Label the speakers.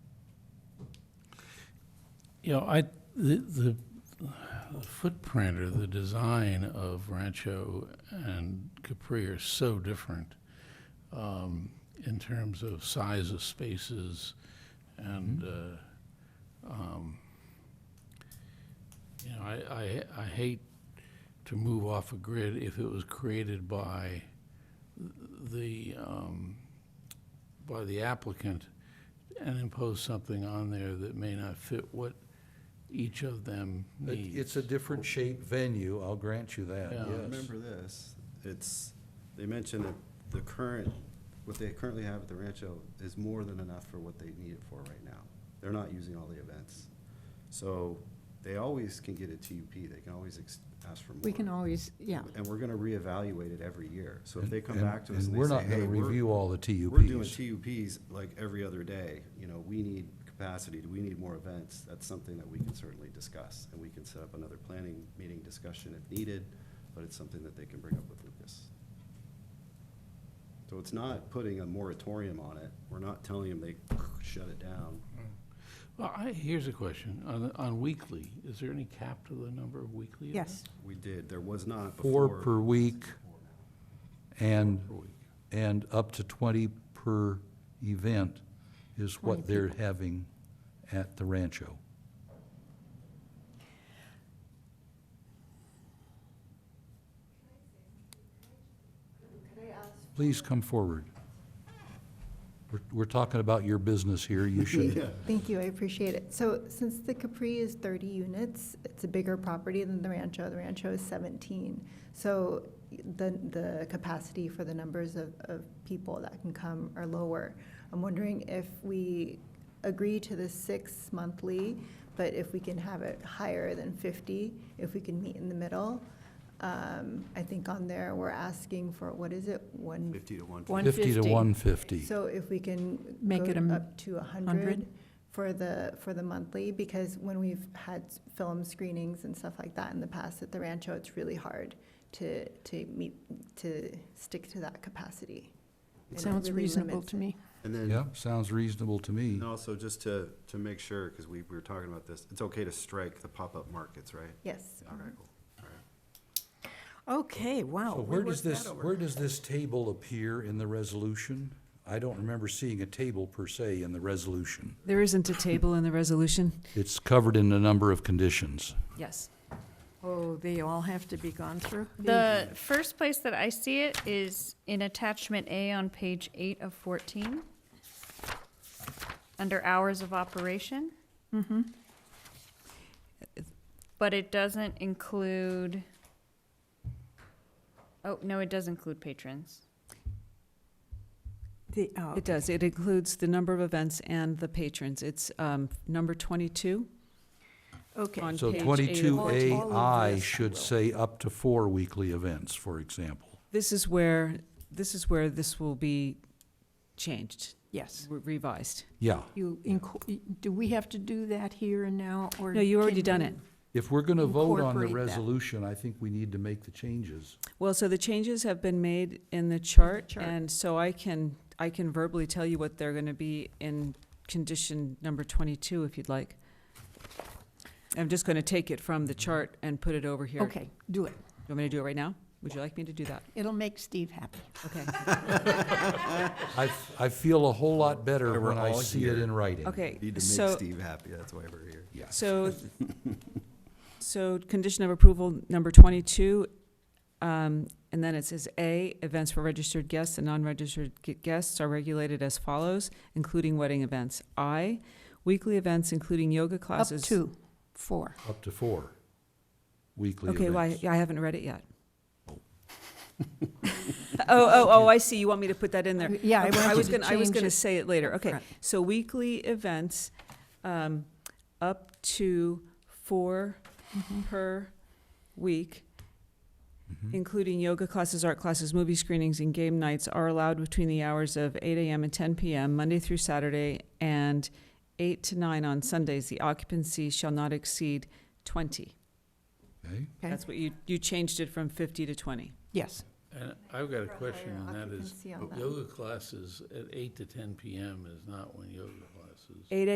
Speaker 1: You know, I, the, the the footprint or the design of Rancho and Capri are so different um, in terms of size of spaces and,
Speaker 2: Mm-hmm.
Speaker 1: uh, um, you know, I, I, I hate to move off a grid if it was created by the, um, by the applicant and impose something on there that may not fit what each of them
Speaker 2: It-
Speaker 1: needs.
Speaker 2: It's a different shaped venue, I'll grant you that,
Speaker 1: Yeah.
Speaker 2: yes.
Speaker 1: I
Speaker 3: Remember this, it's, they mentioned that the current, what they currently have at the Rancho is more than enough for what they need it for right now. They're not using all the events. So they always can get a TUP, they can always ex- ask for more.
Speaker 4: We can always, yeah.
Speaker 3: And we're gonna reevaluate it every year. So if they come
Speaker 2: And-
Speaker 3: back to us
Speaker 2: and
Speaker 3: and they say,
Speaker 2: we're
Speaker 3: hey,
Speaker 2: not gonna
Speaker 3: we're,
Speaker 2: review all the TUPs.
Speaker 3: we're doing TUPs like every other day, you know, we need capacity, we need more events, that's something that we can certainly discuss. And we can set up another planning meeting discussion if needed, but it's something that they can bring up with Lucas. So it's not putting a moratorium on it, we're not telling them they shut it down.
Speaker 1: Well, I, here's a question. On, on weekly, is there any cap to the number of weekly
Speaker 4: Yes.
Speaker 1: events?
Speaker 3: We did, there was not
Speaker 2: Four
Speaker 3: before.
Speaker 2: per week and,
Speaker 1: per week?
Speaker 2: and up to twenty per event is what
Speaker 4: 20
Speaker 2: they're having at the Rancho. Please come forward. We're, we're talking about your business here, you should,
Speaker 4: Thank you, I appreciate it. So since the Capri is 30 units, it's a bigger property than the Rancho. The Rancho is 17. So the, the capacity for the numbers of, of people that can come are lower. I'm wondering if we agree to the six monthly, but if we can have it higher than 50, if we can meet in the middle. Um, I think on there, we're asking for, what is it? One,
Speaker 3: Fifty to one.
Speaker 5: One-
Speaker 2: fifty to
Speaker 5: 150.
Speaker 2: one fifty.
Speaker 4: So if we can.
Speaker 5: Make
Speaker 4: go
Speaker 5: it a m-
Speaker 4: Up to a hundred
Speaker 5: 100?
Speaker 4: for the, for the monthly, because when we've had s- film screenings and stuff like that in the past at the Rancho, it's really hard to, to meet, to stick to that capacity. And it
Speaker 5: Sounds
Speaker 4: really
Speaker 5: reasonable
Speaker 4: limits
Speaker 5: to
Speaker 4: it.
Speaker 5: me.
Speaker 3: And then
Speaker 2: Yeah, sounds reasonable to me.
Speaker 3: And also, just to, to make sure, because we, we were talking about this, it's okay to strike the pop-up markets, right?
Speaker 4: Yes.
Speaker 3: All right, cool, all right.
Speaker 5: Okay, wow.
Speaker 2: So
Speaker 5: Oh, we
Speaker 2: where does
Speaker 5: worked that
Speaker 2: this,
Speaker 5: over.
Speaker 2: where does this table appear in the resolution? I don't remember seeing a table per se in the resolution.
Speaker 5: There isn't a table in the resolution?
Speaker 2: It's covered in a number of conditions.
Speaker 5: Yes. Oh, they all have to be gone through?
Speaker 6: The first place that I see it is in attachment A on page eight of fourteen, under hours of operation. But it doesn't include, oh, no, it does include patrons.
Speaker 5: The- oh, It does. It includes the number of events and the patrons. It's um, number 22.
Speaker 4: Okay.
Speaker 5: On
Speaker 2: So
Speaker 5: page eight Oh, of
Speaker 2: twenty-two
Speaker 5: fourteen.
Speaker 2: AI should say up to four weekly events, for example.
Speaker 5: This is where, this is where this will be changed. Yes. Revised.
Speaker 2: Yeah,
Speaker 7: You, inco- do we have to do that here and now, or?
Speaker 5: No, you already
Speaker 7: can
Speaker 5: done it.
Speaker 2: if we're gonna vote on the
Speaker 7: Incorporate that.
Speaker 2: resolution, I think we need to make the changes.
Speaker 5: Well, so the changes have been made in the chart,
Speaker 7: chart.
Speaker 5: and so I can, I can verbally tell you what they're gonna be in condition number twenty-two, if you'd like. I'm just gonna take it from the chart and put it over here.
Speaker 7: Okay, do it.
Speaker 5: You want me to do it right now? Would you like me to do that?
Speaker 7: It'll make Steve happy.
Speaker 5: Okay,
Speaker 2: I, f- I feel a whole lot better
Speaker 3: They were
Speaker 2: when I
Speaker 3: all
Speaker 2: see it
Speaker 3: here.
Speaker 2: in writing.
Speaker 5: okay,
Speaker 3: Need to make
Speaker 5: so,
Speaker 3: Steve happy, that's why we're here.
Speaker 2: Yeah.
Speaker 5: so, so condition of approval number twenty-two, um, and then it says A, events for registered guests and non-registered gu- guests are regulated as follows, including wedding events. I, weekly events including yoga
Speaker 7: Up
Speaker 5: classes.
Speaker 7: to four.
Speaker 2: Up to four weekly events.
Speaker 5: Okay, well, I, I haven't read it yet. Oh, oh, oh, I see, you want me to put that in there.
Speaker 7: Yeah, I
Speaker 5: Okay,
Speaker 7: want
Speaker 5: was
Speaker 7: you to
Speaker 5: gonna, I was
Speaker 7: change
Speaker 5: gonna
Speaker 7: it
Speaker 5: say it later,
Speaker 7: up
Speaker 5: okay.
Speaker 7: front.
Speaker 5: So weekly events, um, up to four
Speaker 7: Mm-hmm.
Speaker 5: per week, including yoga classes, art classes, movie screenings, and game nights are allowed between the hours of eight AM and ten PM, Monday through Saturday, and eight to nine on Sundays. The occupancy shall not exceed twenty.
Speaker 2: Okay.
Speaker 7: Okay.
Speaker 5: That's what you, you changed it from fifty to twenty.
Speaker 7: Yes,
Speaker 1: And I've got a
Speaker 4: For a
Speaker 1: question,
Speaker 4: higher
Speaker 1: and that is,
Speaker 4: occupancy on that.
Speaker 1: yoga classes at eight to ten PM is not when yoga classes.
Speaker 5: Eight